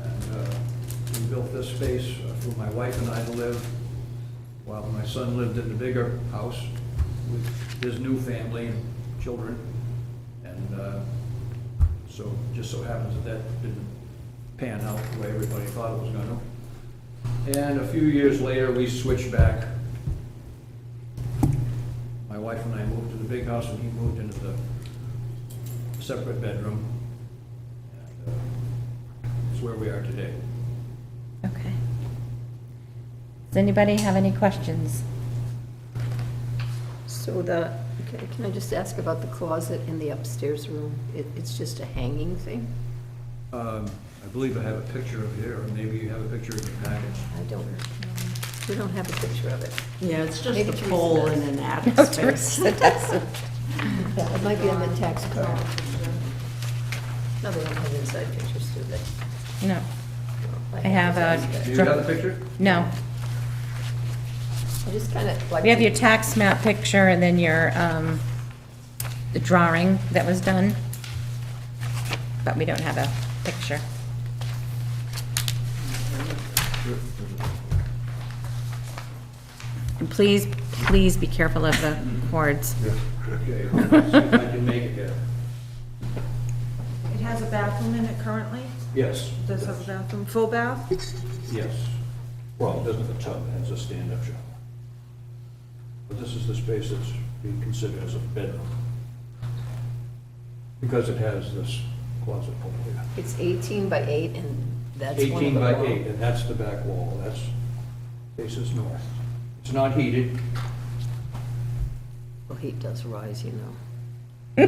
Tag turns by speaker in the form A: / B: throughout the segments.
A: uh, this space uh, for my wife and I to live while my son lived in the bigger house with his new family and children. And uh, so, just so happens that that didn't pan out the way everybody thought it was gonna. And a few years later, we switched back. My wife and I moved to the big house and he moved into the separate bedroom. And, uh, It's where we are today.
B: Okay. Does anybody have any questions?
C: So the, okay, can I just ask about the closet in the upstairs room? It, it's just a hanging thing?
A: Um, I believe I have a picture of here, or maybe you have a picture in your package.
C: I don't, know. we don't have a picture of it.
D: Yeah, it's just
C: Maybe
D: a
C: Teresa
D: pole
C: does.
D: in an attic
B: No,
D: space.
B: Teresa doesn't.
C: It might be on the tax card. No, they don't have inside pictures, do they?
B: No,
C: No,
B: I have
C: inside.
A: Do
B: a.
A: you have the picture?
B: No.
C: I just kind of like.
B: We have
C: to-
B: your tax map picture and then your, um, the drawing that was done. But we don't have a picture. And please, please be careful of the cords.
A: Okay, hold on, see if I can make it here.
E: It has a bathroom in it currently?
A: Yes.
E: Does it have a bathroom, full bath?
A: Yes. Well, it doesn't have a tub, it has a stand-up shower. But this is the space that's being considered as a bedroom. Because it has this closet over here.
C: It's 18 by 8 and that's one of
A: 18
C: the.
A: by
C: wall-
A: 8, and that's the back wall, that's, faces north. It's not heated,
C: Well, heat does rise, you know.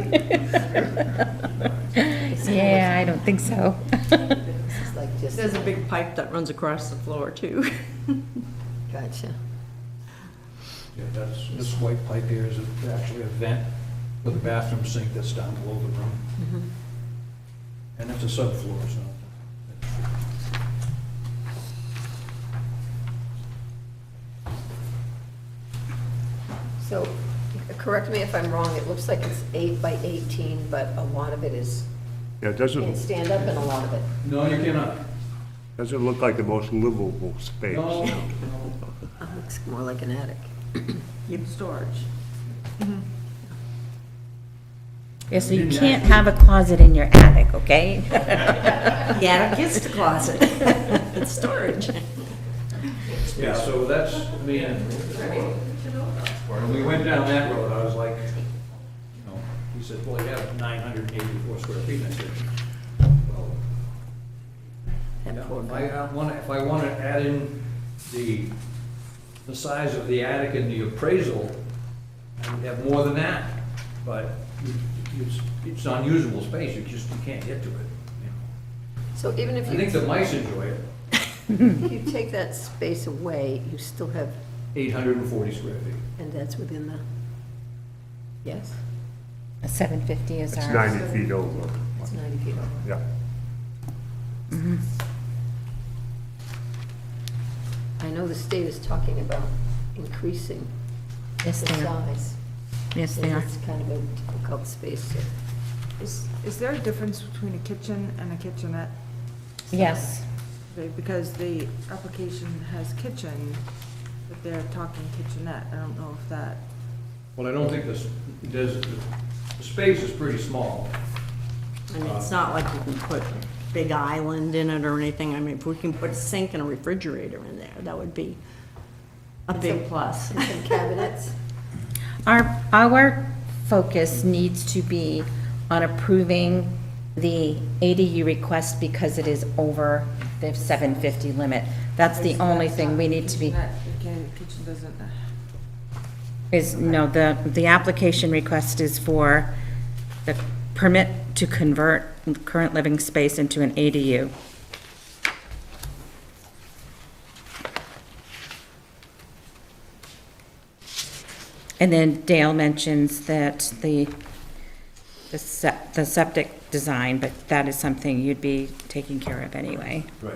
B: Yeah, I don't think so.
C: This is like just,
D: There's a big pipe that runs across the floor, too.
C: gotcha.
A: Yeah, that's, this white pipe here is actually a vent for the bathroom sink that's down below the room. And it's a subfloor, so.
C: So, correct me if I'm wrong, it looks like it's 8 by 18, but a lot of it is,
F: Yeah, it
C: can
F: doesn't,
C: stand up and a lot of it.
A: No, you cannot.
F: doesn't look like the most livable space.
A: No, no.
C: Uh, Looks more like an attic.
D: Keep storage.
B: Yeah, so you can't have a closet in your attic, okay?
D: The attic is the closet. It's storage.
A: Yeah, so that's, I mean, when we went down that road, I was like, you know, he said, well, you have 984 square feet. And I said, well,
C: That
A: Yeah,
C: poor
A: If
C: guy.
A: I uh, wanna, if I wanna add in the, the size of the attic and the appraisal, I would have more than that, but it's, it's unusable space, you just, you can't get to it. you
C: So even if
A: know. I think
C: you,
A: the mice enjoy it,
C: if you take that space away, you still have,
A: eight hundred and forty square feet.
C: and that's within the, yes,
B: Seven fifty is
F: It's
B: ours.
F: 90 feet over.
C: it's 90 feet over.
F: Yeah.
B: Mm-hmm.
C: I know the state is talking about increasing the
B: Yes, they are.
C: size.
B: Yes, they are.
C: It's kind of a difficult space to.
E: Is, is there a difference between a kitchen and a kitchenette?
B: Yes.
E: Because the application has kitchen, but they're talking kitchenette, I don't know if that,
A: Well, I don't think this, there's, the space is pretty small.
D: I mean, it's not like you can put a big island in it or anything. I mean, if we can put a sink and a refrigerator in there, that would be a big plus.
C: And some cabinets,
B: Our, our focus needs to be on approving the ADU request because it is over the seven fifty limit. That's the only thing we need to be,
E: Kitchenette, okay, kitchen doesn't,
B: is, no, the, the application request is for the permit to convert current living space into an ADU. And then Dale mentions that the, the sep- the septic design, but that is something you'd be taking care of anyway.
A: Right.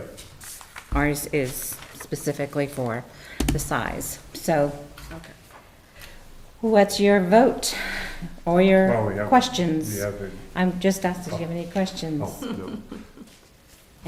B: Ours is specifically for the size, so.
E: okay.
B: What's your vote or
F: Well, we
B: your
F: have-
B: questions?
F: We have it.
B: I'm just asked if you have any questions.
F: oh, no.